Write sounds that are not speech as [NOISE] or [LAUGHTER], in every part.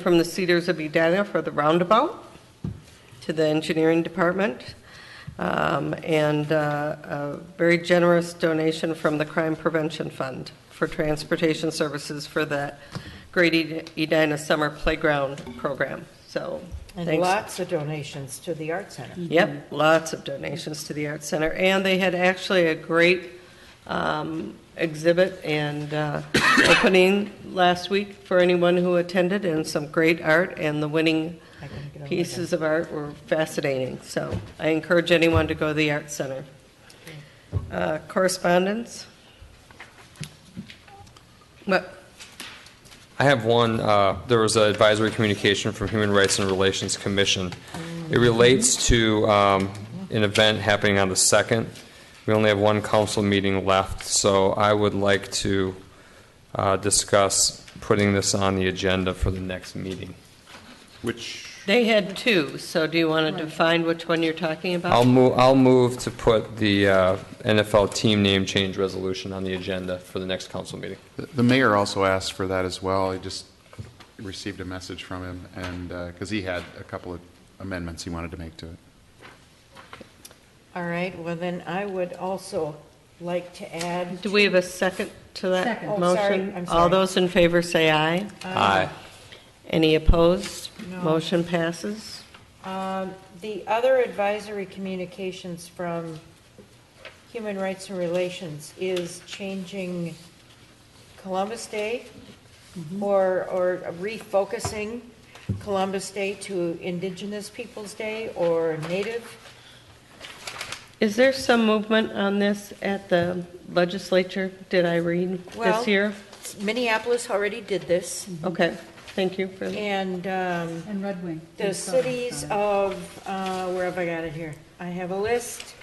from the Cedars of Edina for the roundabout to the engineering department, um, and uh, a very generous donation from the Crime Prevention Fund for transportation services for the Great Ed- Edina Summer Playground Program. So, And thanks. lots of donations to the Art Center. Yep, lots of donations to the Art Center. And they had actually a great um, exhibit and uh, [COUGHS] opening last week for anyone who attended, and some great art, and the winning I couldn't get over that. pieces of art were fascinating. So I encourage anyone to go to the Art Center. Uh, Correspondence? What? I have one. uh, There was an advisory communication from Human Rights and Relations Commission. It relates to um, an event happening on the 2nd. We only have one council meeting left, so I would like to uh, discuss putting this on the agenda for the next meeting. Which, They had two, so do you want to define which one you're talking I'll about? move, I'll move to put the uh, NFL team name change resolution on the agenda for the next council meeting. the the mayor also asked for that as well. I just received a message from him, and, because he had a couple of amendments he wanted to make to it. All right, well then I would also like to add, Do we have a second to that Second. motion? Oh, sorry, I'm All sorry. those in favor say aye. Aye. Any opposed? No. Motion passes. um, the other advisory communications from Human Rights and Relations is changing Columbus Day or, or refocusing Columbus Day to Indigenous Peoples' Day or Native. Is there some movement on this at the legislature? Did I read Well- this year? Minneapolis already did this, Okay, thank you Mm-hmm. for and, um, And Red Wing. The cities of, uh, where have I got it here? I have a list.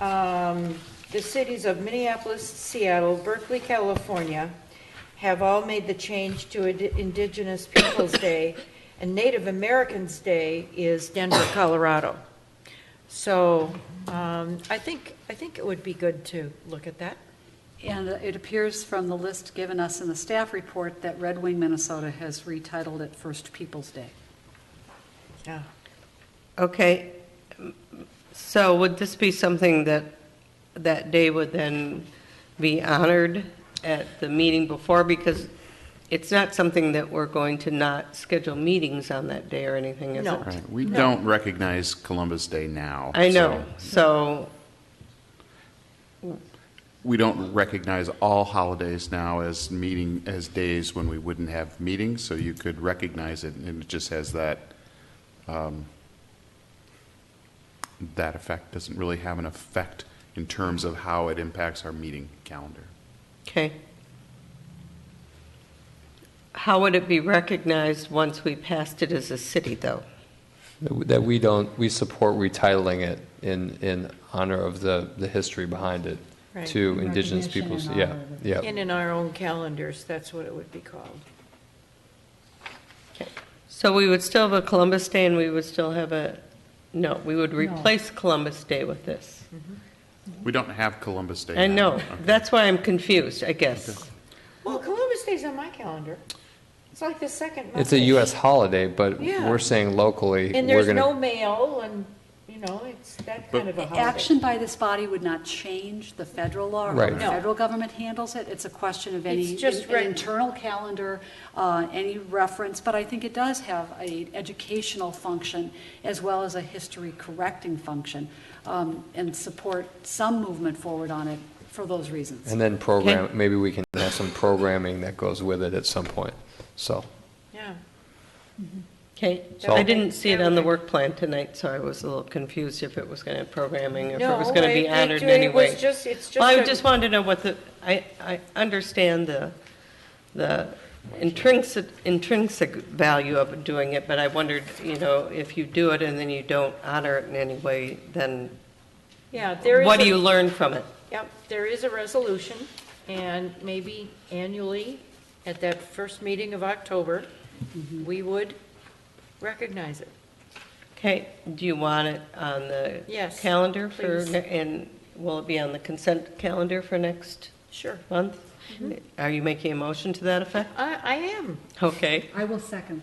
Um, The cities of Minneapolis, Seattle, Berkeley, California have all made the change to Ind- Indigenous Peoples' [COUGHS] Day, and Native Americans' Day is Denver, [COUGHS] Colorado. So um, I think, I think it would be good to look at that. And it appears from the list given us in the staff report that Red Wing, Minnesota has retitled it First Peoples' Day. Yeah. Okay, so would this be something that, that day would then be honored at the meeting before? Because it's not something that we're going to not schedule meetings on that day or anything, is it? No. Right, we don't recognize Columbus Day now. I know, so so, We don't recognize all holidays now as meeting, as days when we wouldn't have meetings, so you could recognize it, and it just has that, um, that effect, doesn't really have an effect in terms of how it impacts our meeting calendar. okay. How would it be recognized once we passed it as a city, though? That we don't, we support retitling it in, in honor of the, the history behind it Right. to indigenous peoples, Recognition in yeah, honor of yeah. And in our own calendars, that's what it would be called. So we would still have a Columbus Day and we would still have a, no, we would replace Columbus Day with this. We don't have Columbus Day now. I know, Okay. that's why I'm confused, I guess. Well, Columbus Day's on my calendar. It's like the second Monday. It's a US holiday, but Yeah. we're saying locally, And we're there's no gonna, mail and, you know, it's that kind of a holiday. Action by this body would not change the federal law. or how Right. The No. federal government handles it. It's a question of any, It's just an reg- internal calendar, uh, any reference. But I think it does have a educational function as well as a history correcting function um, and support some movement forward on it for those reasons. and then program, maybe we can have some programming that goes with it at some point, so. Yeah, Okay, So- I didn't see it on the work plan tonight, so I was a little confused if it was going to have programming, if it was No, going to it- be it- honored in it any way. was just- it's Well, I just a- just wanted to know what the, I, I understand the, the intrinsic, intrinsic value of doing it, but I wondered, you know, if you do it and then you don't honor it in any way, then yeah, there is. what do a- you learn from it? Yep, there is a resolution, and maybe annually, at that first meeting of October, Mm-hmm. we would recognize it. Okay, do you want it on the Yes, calendar for, please. ne- and will it be on the consent calendar for next Sure. month? Are you making a motion to that effect? Mm-hmm. I, I am. Okay. I will second.